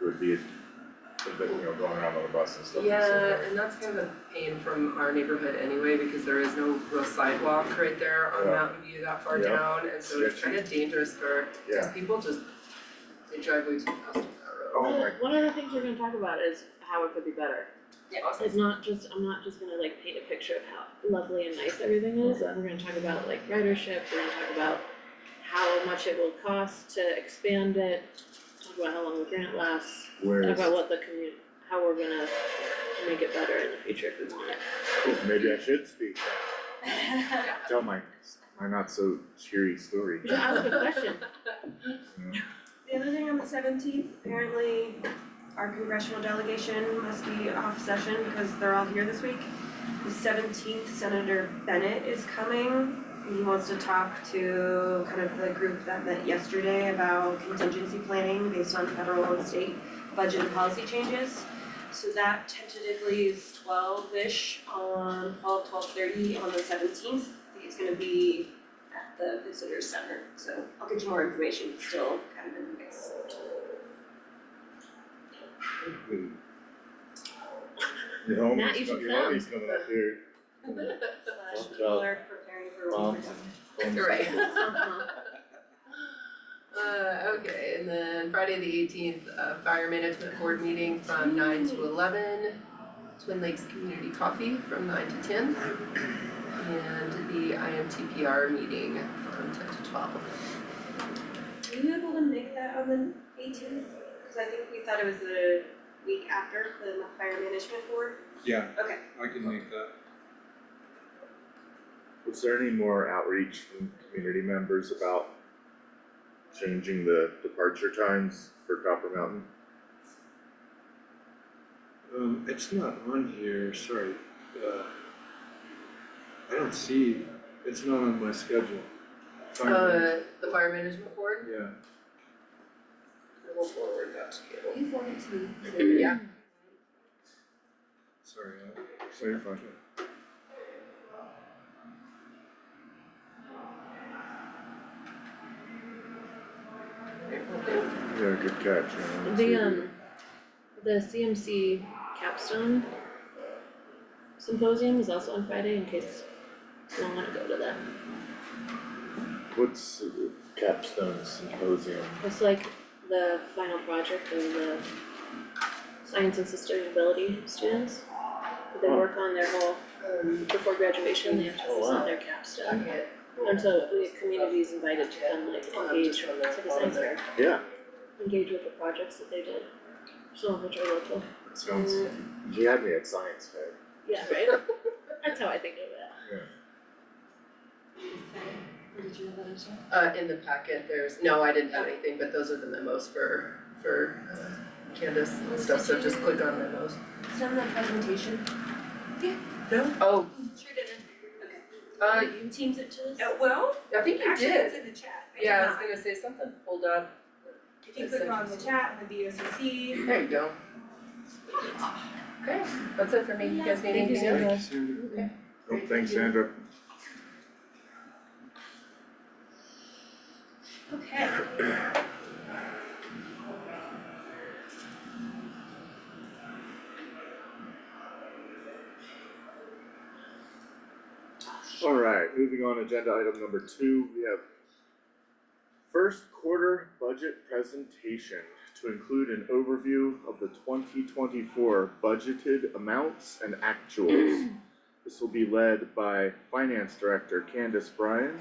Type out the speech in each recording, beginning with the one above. would be, if they, you know, going around on the bus and stuff. and so Yeah, forth. and that's kind of a pain from our neighborhood anyway, because there is no real sidewalk right there on Yeah. Mountain View that far Yeah. down, and so it's kind of dangerous for, Yeah. because people just, they drive way too fast on that road. Oh my, One of the things we're gonna talk about is how it could be better. Awesome. It's not just, I'm not just gonna like paint a picture of how lovely and nice everything is, we're gonna talk about like ridership, we're gonna talk about how much it will cost to expand it, talk about how long the grant lasts, where talk is, about what the commu, how we're gonna make it better in the future if we want it. oof, oh, maybe I should speak, Yeah. tell my, my not so cheery story. Just ask a question, The other thing on the seventeenth, apparently our congressional delegation must be off session because they're all here this week. The seventeenth, Senator Bennett is coming. He wants to talk to kind of the group that met yesterday about contingency planning based on federal and state budget and policy changes. So that tentatively is twelve-ish on, twelve, twelve-thirty on the seventeenth. It's gonna be at the visitor center, so I'll get you more information, it's still kind of in the mix. Hmm. Your home Matt, you is, should your home come. is coming up here. Slash Well, people are preparing for um, winter. You're right. Uh-huh. Uh, okay, and then Friday the eighteenth, uh, fire management board meeting from nine to eleven. Twin Lakes Community Coffee from nine to ten. And the IMTPR meeting from ten to twelve. Were you able to make that on the eighteenth? Cause I think we thought it was the week after the fire management board. Yeah, Okay. I can make that. Was there any more outreach from community members about changing the departure times for Copper Mountain? Um, it's not on here, sorry, uh, I don't see, it's not on my schedule. Fire Uh, the fire management board, Yeah, we'll forward that to you. You wanted to. Yeah, sorry, I, So you're fine. Yeah, good catch, you know. The um, the CMC capstone symposium is also on Friday in case you don't wanna go to that. What's uh, capstone symposium? It's like the final project of the science and sustainability students. They Huh. work on their whole, um, before graduation, they have to Oh, present wow. their capstone. okay, And so we have communities invited to come like I'll have engage to to turn the that on science fair, there. Yeah, engage with the projects that they did. Some of which are local, that sounds, you had me at science fair. yeah, right? That's how I think of it. Did you have that as well? Uh, in the packet, there's, no, I didn't have anything, but those are the memos for, for uh, Candace and stuff, so just click on memos. Send the presentation. Oh, Sure didn't. Okay. uh, you, Teams it to us? Uh, well, I think you actually did. it's in the chat. I did Yeah, I was not. gonna say something pulled up. If you click on the chat, and the B O C C, There you go. Okay, that's it for me. You guys need Thank you anything so else? Thank you, much. Sandra. Okay. Oh, thanks, Sandra. Okay. Alright, moving on, agenda item number two, we have first quarter budget presentation to include an overview of the twenty twenty-four budgeted amounts and actuals. This will be led by Finance Director Candace Bryan,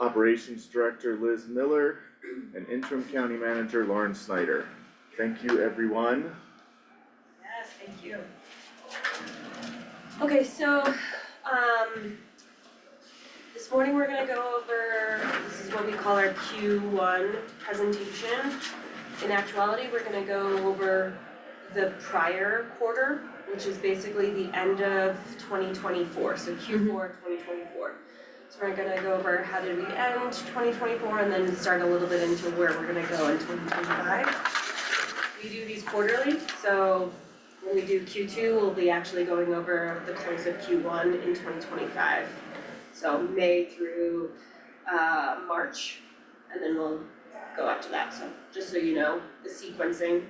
Operations Director Liz Miller, and Interim County Manager Lauren Snyder. Thank you, everyone. Yes, thank you. Okay, so, um, this morning we're gonna go over, this is what we call our Q one presentation. In actuality, we're gonna go over the prior quarter, which is basically the end of twenty twenty-four, so Q four twenty twenty-four. So we're gonna go over how did we end twenty twenty-four and then start a little bit into where we're gonna go in twenty twenty-five. We do these quarterly, so when we do Q two, we'll be actually going over the close of Q one in twenty twenty-five. So May through uh March, and then we'll go up to that, so just so you know, the sequencing